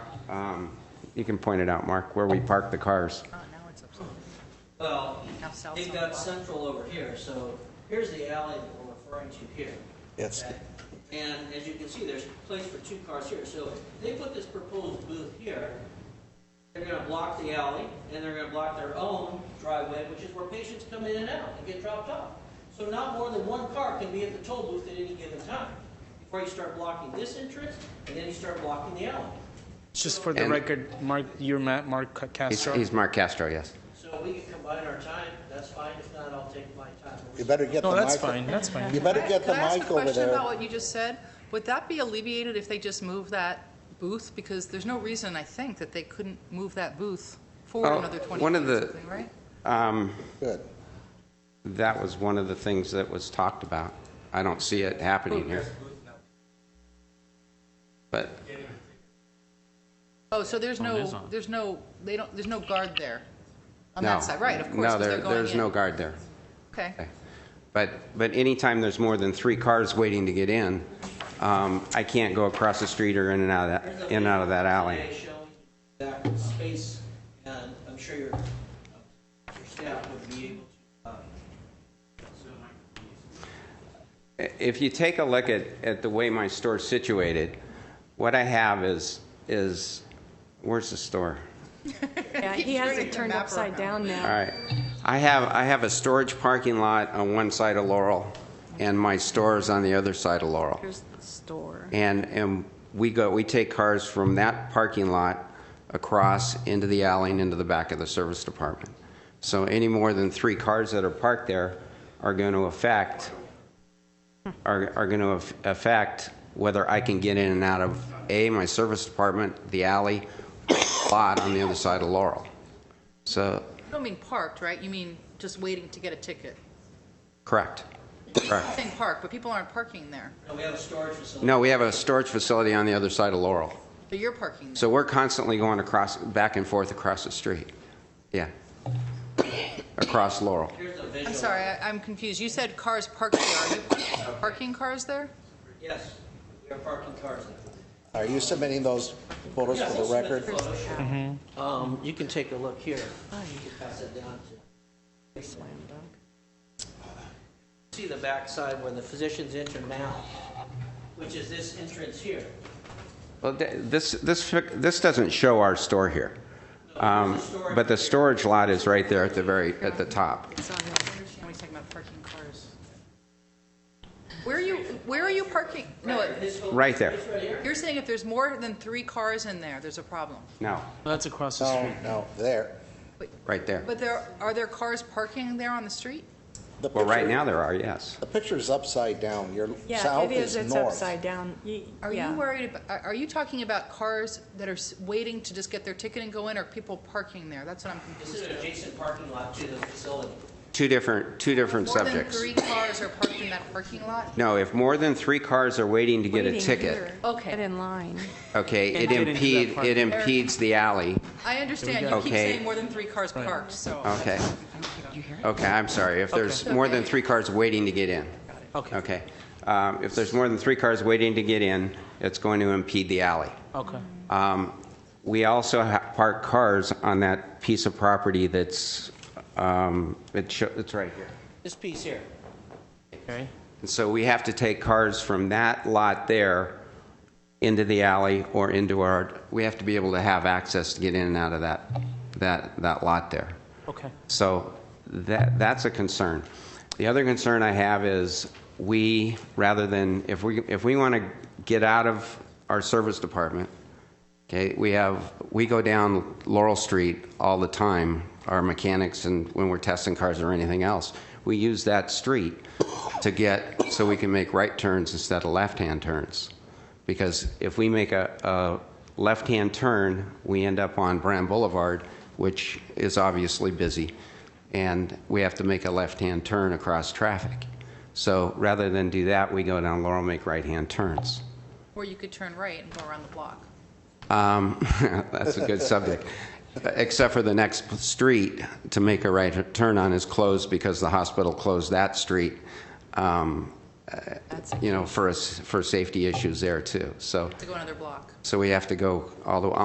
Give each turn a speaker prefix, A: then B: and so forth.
A: Um, You can point it out, Mark, where we park the cars.
B: Oh, now it's upside down.
C: Well,
B: Now south
C: they've
B: side
C: got
B: block.
C: central over here, so here's the alley that we're referring to here.
D: That's-
C: okay? And as you can see, there's place for two cars here, so if they put this proposed booth here, they're gonna block the alley, and they're gonna block their own driveway, which is where patients come in and out and get dropped off. So not more than one car can be at the toll booth at any given time, before you start blocking this entrance, and then you start blocking the alley.
E: Just for the
A: And-
E: record, Mark, you're Ma- Mark
A: He's-
E: Castro.
A: He's Mark Castro, yes.
C: So we can combine our time, that's fine, if not, I'll take my time.
D: You better get the
E: No,
D: mic.
E: that's fine, that's fine.
D: You better
B: Can I-
D: get the mic
B: Can I ask a
D: over
B: question about
D: there.
B: what you just said? Would that be alleviated if they just moved that booth? Because there's no reason, I think, that they couldn't move that booth forward
A: Oh,
B: another 20
A: one
B: feet
A: of
B: or
A: the-
B: something, right?
A: Um,
D: Good.
A: That was one of the things that was talked about. I don't see it happening here. But,
B: Oh, so there's
E: Phone is
B: no,
E: on.
B: there's no, they don't, there's no guard there on
A: no.
B: that side, right? Of course,
A: No,
B: because they're
A: there-
B: going
A: there's no
B: in.
A: guard there.
B: Okay.
A: Okay. But, but anytime there's more than three cars waiting to get in, um, I can't go across the street or in and out of that, in and out of that alley.
C: Today showing That space, and I'm sure your, your staff would be able to, uh,
A: If you take a look at, at the way my store's situated, what I have is, is, where's the store?
F: Yeah, he has it turned upside down
A: All
F: now.
A: right. I have, I have a storage parking lot on one side of Laurel, and my store is on the other side of Laurel.
F: Here's the store.
A: And, and we go, we take cars from that parking lot across into the alley and into the back of the service department. So any more than three cars that are parked there are going to affect, are, are going to affect whether I can get in and out of, A, my service department, the alley, lot on the other side of Laurel. So,
B: You don't mean parked, right? You mean just waiting to get a ticket.
A: correct,
B: I'm
A: correct.
B: saying parked, but people aren't parking there.
C: no, we have a storage facility.
A: No, we have a storage facility on the other side of Laurel.
B: But you're parking there.
A: So we're constantly going across, back and forth across the street. Yeah. Across Laurel.
C: Here's the visual.
B: I'm sorry, I- I'm confused. You said cars parked there. Are you parking cars there?
C: Yes, we are parking cars now.
D: Are you submitting those photos
C: Yes,
D: for
C: I'll
D: the
C: submit
D: record?
C: photo shoot. Um, you can take a look here. You can pass it down to. See the backside where the physicians enter now, which is this entrance here.
A: Well, th- this, this, fic- this doesn't show our store here. Um, But the storage lot is right there at the very, at the top.
B: It's on there. I understand what he's talking about, parking cars. Where are you, where are you parking? No,
C: This whole-
A: Right there.
C: this right here,
B: you're saying if there's more than three cars in there, there's a problem.
A: No,
E: That's across
A: Oh.
E: the
D: No,
E: street.
D: no, there.
A: right there.
B: But there, are there cars parking there on the street?
D: The
A: Well, right
D: picture-
A: now there are, yes.
D: The picture's upside down. Your
F: Yeah,
D: south
F: it is,
D: is
F: it's
D: north.
F: upside down. Ye-
B: Are
F: yeah.
B: you worried, ab- are are you talking about cars that are s- waiting to just get their ticket and go in, or people parking there? That's what I'm
C: This
B: confused.
C: is an adjacent parking lot to the facility.
A: Two different, two different subjects.
B: More than three cars are parked in that parking lot?
A: No, if more than three cars are waiting to get a
F: Waiting
A: ticket,
F: here.
B: Okay.
F: Get in line.
A: okay,
E: Can't
A: it
E: get into that
A: impede,
E: park.
A: it impedes the alley.
B: I understand, you keep
A: Okay.
B: saying more than three cars parked, so.
A: Okay. Okay, I'm sorry. If there's more than three cars waiting to get in.
E: Okay.
A: Okay. Um, If there's more than three cars waiting to get in, it's going to impede the alley.
E: Okay.
A: Um, We also ha- park cars on that piece of property that's, um, it sho- it's right here.
C: This piece here.
E: Okay.
A: And so we have to take cars from that lot there into the alley or into our, we have to be able to have access to get in and out of that, that, that lot there.
E: Okay.
A: So that, that's a concern. The other concern I have is we, rather than, if we, if we want to get out of our service department, okay, we have, we go down Laurel Street all the time, our mechanics and when we're testing cars or anything else. We use that street to get, so we can make right turns instead of left-hand turns. Because if we make a, a left-hand turn, we end up on Brand Boulevard, which is obviously busy, and we have to make a left-hand turn across traffic. So rather than do that, we go down Laurel, make right-hand turns.
B: Or you could turn right and go around the block.
A: Um, That's a good subject. Except for the next street to make a right turn on is closed because the hospital closed that street, um, uh, you know, for, us- for safety issues there, too. So,
B: To go another block.
A: so we have to go all the,